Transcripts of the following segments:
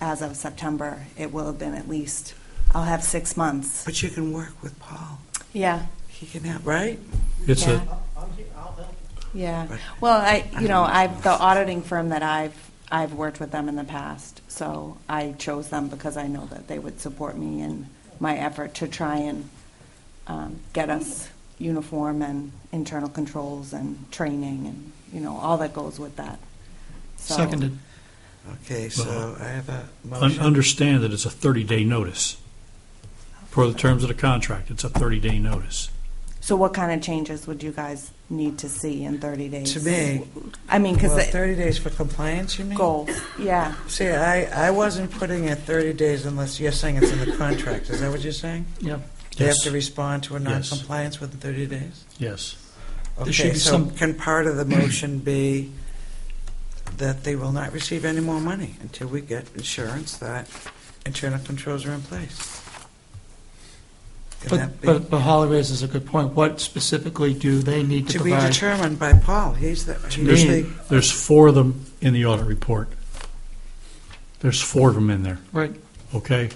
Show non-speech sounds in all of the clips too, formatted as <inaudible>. as of September, it will have been at least, I'll have six months. But you can work with Paul. Yeah, He can help, right? It's Yeah. a, yeah. Right. Well, I, you know, I've, the auditing firm that I've, I've worked with them in the past, so I chose them because I know that they would support me in my effort to try and um, get us uniform and internal controls and training and, you know, all that goes with that. So- Seconded. Okay, so I have a un- motion. understand that it's a 30-day notice. Per the terms of the contract, it's a 30-day notice. So what kind of changes would you guys need to see in 30 days? To me, I mean, well, because thirty days for compliance, you mean? goals, yeah. See, I, I wasn't putting it thirty days unless you're saying it's in the contract. Is that what you're saying? Yep. They have Yes. to respond to a Yes. non-compliance within thirty days? Yes. Okay, should be so some- Can part of the motion be that they will not receive any more money until we get insurance that internal controls are in place? Can that But, be- but but Holly raises a good point. What specifically do they need to To be provide? determined by Paul, he's the, he's There's, the, there's four of them in the audit report. There's four of them in there, Right, okay?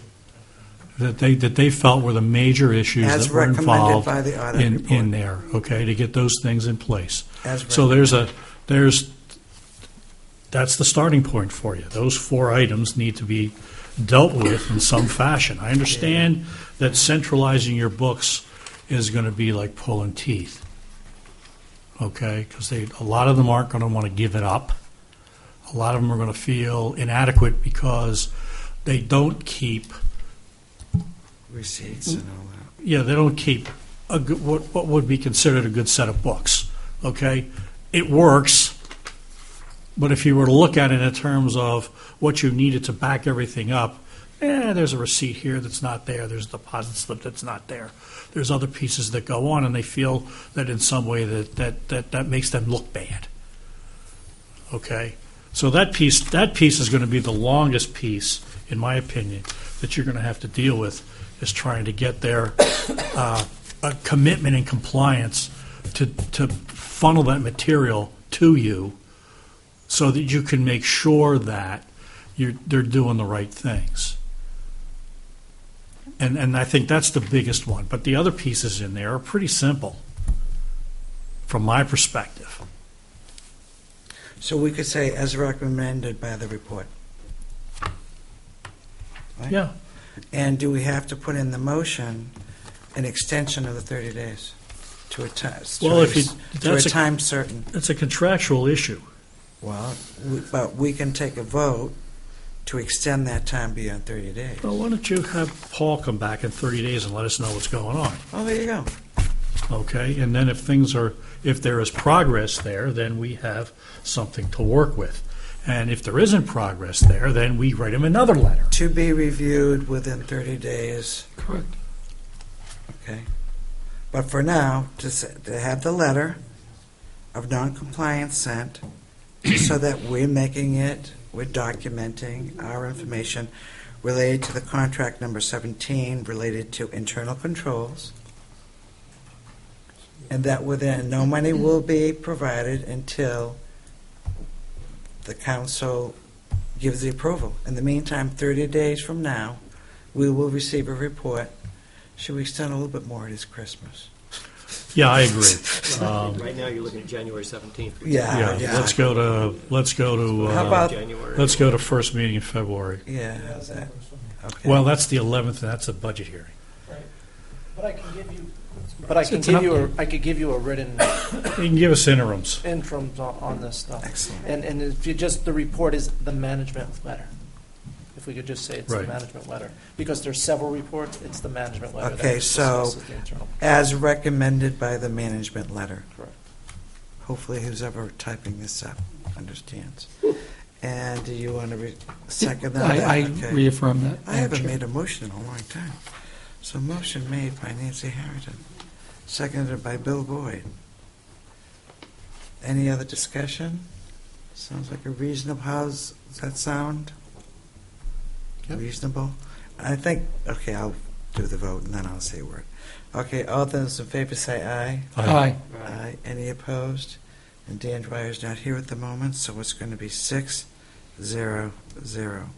That they, that they felt were the major issues As that were recommended involved by the audit in, in report. there, okay, to get those things in place. As So recommended. there's a, there's, that's the starting point for you. Those four items need to be dealt with in some fashion. I understand that centralizing your books is going to be like pulling teeth, okay? Because they, a lot of them aren't going to want to give it up. A lot of them are going to feel inadequate because they don't keep Receipts and all that. yeah, they don't keep a good, what, what would be considered a good set of books. Okay, it works, but if you were to look at it in terms of what you needed to back everything up, eh, there's a receipt here that's not there. There's a deposit slip that's not there. There's other pieces that go on, and they feel that in some way that that that, that makes them look bad. Okay, so that piece that piece is going to be the longest piece, in my opinion, that you're going to have to deal with is trying to get their uh, a commitment and compliance to to funnel that material to you, so that you can make sure that you're they're doing the right things. And and I think that's the biggest one. But the other pieces in there are pretty simple, from my perspective. So we could say as recommended by the report. Right? Yeah. And do we have to put in the motion an extension of the 30 days to a time, Well, if you- to a that's a- time certain? It's a contractual issue. Well, we- but we can take a vote to extend that time beyond 30 days. Well, why don't you have Paul come back in 30 days and let us know what's going on, Oh, there you go. okay? And then if things are, if there is progress there, then we have something to work with. And if there isn't progress there, then we write him another letter. To be reviewed within 30 days, correct. okay? But for now, to s- to have the letter of noncompliance sent so that we're making it, we're documenting our information related to the contract number 17, related to internal controls, and that within, no money will be provided until the council gives the approval. In the meantime, 30 days from now, we will receive a report. Should we extend a little bit more? It is Christmas. Yeah, I agree. Um, Right now, you're looking at January 17th. Yeah, <laughs> Yeah, let's go to, let's go to, How uh, about- January. let's go to first meeting in February. Yeah, how's that? Okay. Well, that's the 11th, and that's a budget hearing. But I can give you, but I So could it's an give you, a I could give you a written You can give us interims. interims on, on this stuff. Excellent. And, and if you just, the report is the management letter. If we could just say it's the Right. management letter. Because there's several reports, it's the management letter. that Okay, so- discusses the internal. As recommended by the management letter. Correct. Hopefully, who's ever typing this up understands. And do you want to re- second that? I, I Okay. reaffirm that. I Madam haven't Chair. made a motion in a long time. So motion made by Nancy Harrington, seconded by Bill Boyd. Any other discussion? Sounds like a reasonable, how's, does that sound? Reasonable? I think, okay, I'll do the vote and then I'll say a word. Okay, all those in favor say aye. Aye, Aye. Any opposed? And Dan Dwyer's not here at the moment, so it's going to be six, zero, zero.